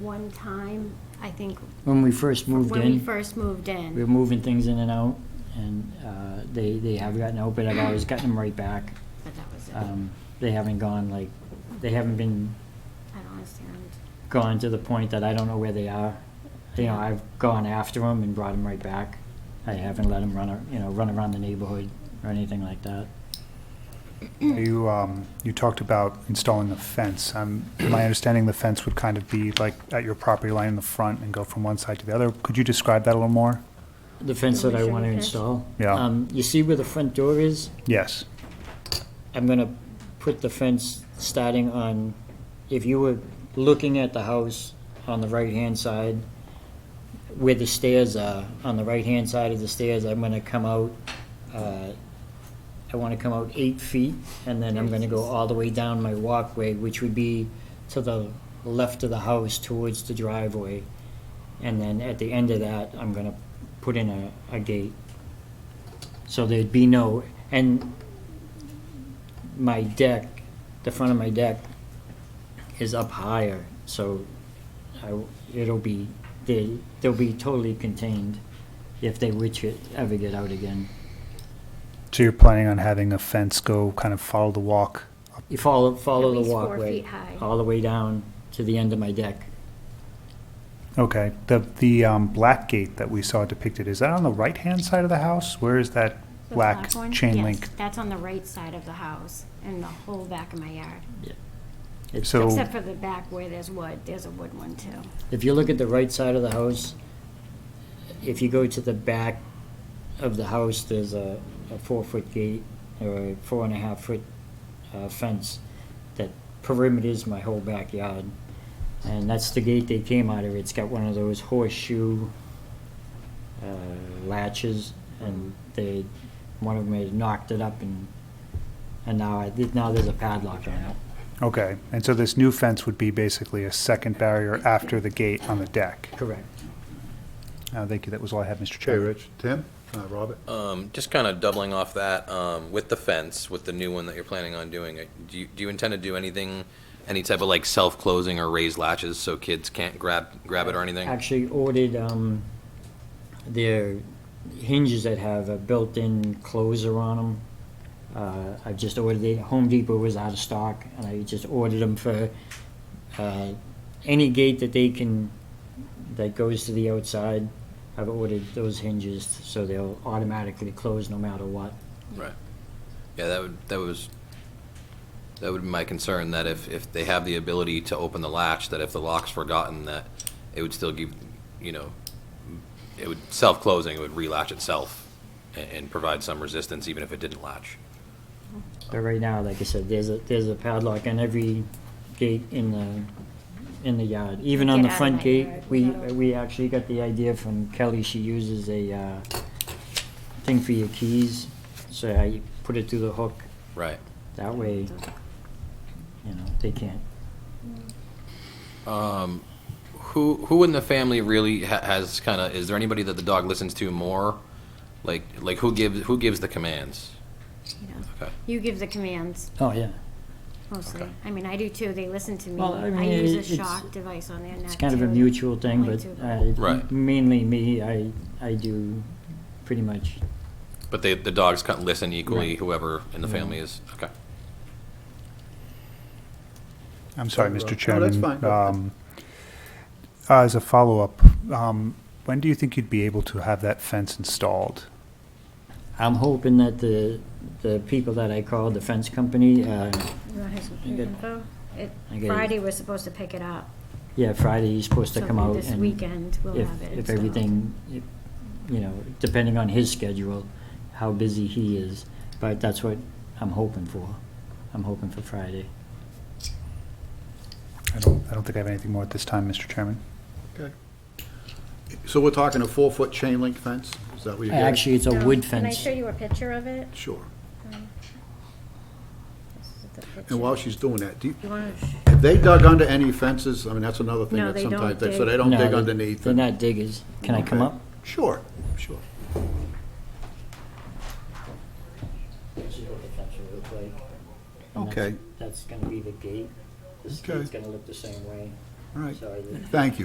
one time, I think, When we first moved when we in, first moved we were in. moving things in and out, and uh, they, they have gotten out, but I've always gotten them right back. But that was it. I Um, They haven't gone like, they haven't been don't understand. gone to the point that I don't know where they are. You know, I've gone after them and brought them right back. I haven't let them run, ar- you know, run around the neighborhood or anything like that. Mm. You, um, you talked about installing a fence. Um, my understanding, the fence would kind of be like at your property line in the front and go from one side to the other. Could you describe that a little more? The fence that I want to Okay. install. Yeah. Um, You see where the front door is? Yes. I'm gonna put the fence starting on, if you were looking at the house on the right-hand side, where the stairs are, on the right-hand side of the stairs, I'm gonna come out, uh, I wanna come out eight feet, and then I'm gonna go all the way down my walkway, which would be to the left of the house towards the driveway. And then at the end of that, I'm gonna put in a, a gate. So there'd be no, and my deck, the front of my deck is up higher, so I, it'll be, they, they'll be totally contained if they were to ever get out again. So you're planning on having a fence go kind of follow the walk? You follow, follow At the least four walkway. feet high. All the way down to the end of my deck. Okay. The, the, um, black gate that we saw depicted, is that on the right-hand side of the house? Where is that The black one? chain Yes, link? That's on the right side of the house and the whole back of my yard. It's- So- Except for the back where there's wood, there's a wood one too. If you look at the right side of the house, if you go to the back of the house, there's a, a four-foot gate or a four and a half foot uh, fence that perimeters my whole backyard. And that's the gate they came out of. It's got one of those horseshoe uh, latches and they, one of them had knocked it up and, and now, I- now there's a padlock on it. Okay. And so this new fence would be basically a second barrier after the gate on the deck. Correct. Uh, thank you. That was all I had, Mr. Okay, Chair. Rich. Tim? Uh, Robert? Um, just kind of doubling off that, um, with the fence, with the new one that you're planning on doing, uh, do you, do you intend to do anything, any type of like self-closing or raised latches so kids can't grab, grab it or anything? actually ordered um, their hinges that have a built-in closer on them. Uh, I just ordered it. Home Depot was out of stock, and I just ordered them for uh, any gate that they can that goes to the outside. I've ordered those hinges so they'll automatically close no matter what. Right. Yeah, that would, that was, that would be my concern, that if, if they have the ability to open the latch, that if the lock's forgotten, that it would still give, you know, it would, self-closing, it would relatch itself and, and provide some resistance even if it didn't latch. But right now, like I said, there's a there's a padlock on every gate in the in the yard. Even on Get the out of front my gate, yard. we No. we actually got the idea from Kelly. She uses a uh, thing for your keys, so I put it through the hook. Right. That way, you know, they can't. Who who in the family really ha- has kind of? Is there anybody that the dog listens to more? Like like who gives who gives the commands? you know. Okay. You give the commands Oh yeah, mostly. Okay. I mean, I do too. They listen to me. Well, I mean, I use it- a it's- shock device on their neck too. it's kind of a mutual thing, Mine but too. uh, Right. mainly me. I I do pretty much But they, the dogs kind of listen equally. Right. Whoever in the Yeah. family is okay. I'm sorry, Sorry, Rob. Mr. No, Chairman. that's fine. Go ahead. Um, uh, As a follow-up, um, when do you think you'd be able to have that fence installed? I'm hoping that the, the people that I called, the fence company, uh, You want his I get- info? It- I get it. Friday, we're supposed to pick it up. yeah, Friday, he's supposed to So come out This and weekend, we'll if, have it. if installed. everything, if- you know, depending on his schedule, how busy he is, but that's what I'm hoping for. I'm hoping for Friday. I don't, I don't think I have anything more at this time, Mr. Chairman. Okay. So we're talking a four-foot chain link fence? Is that what you're getting? Actually, it's a Um, wood Can I fence. show you a picture of it? Sure. This is the picture. And while she's doing that, do you, You wanna sh- have they dug under any fences? I mean, that's another thing No, that they don't sometimes, they- so dig. they don't No, dig they- underneath. They're and- not diggers. Can I come Okay. up? Sure, sure. Okay. That's gonna be the gate. The Okay. gate's gonna look the same way. all right. Sorry. Thank you.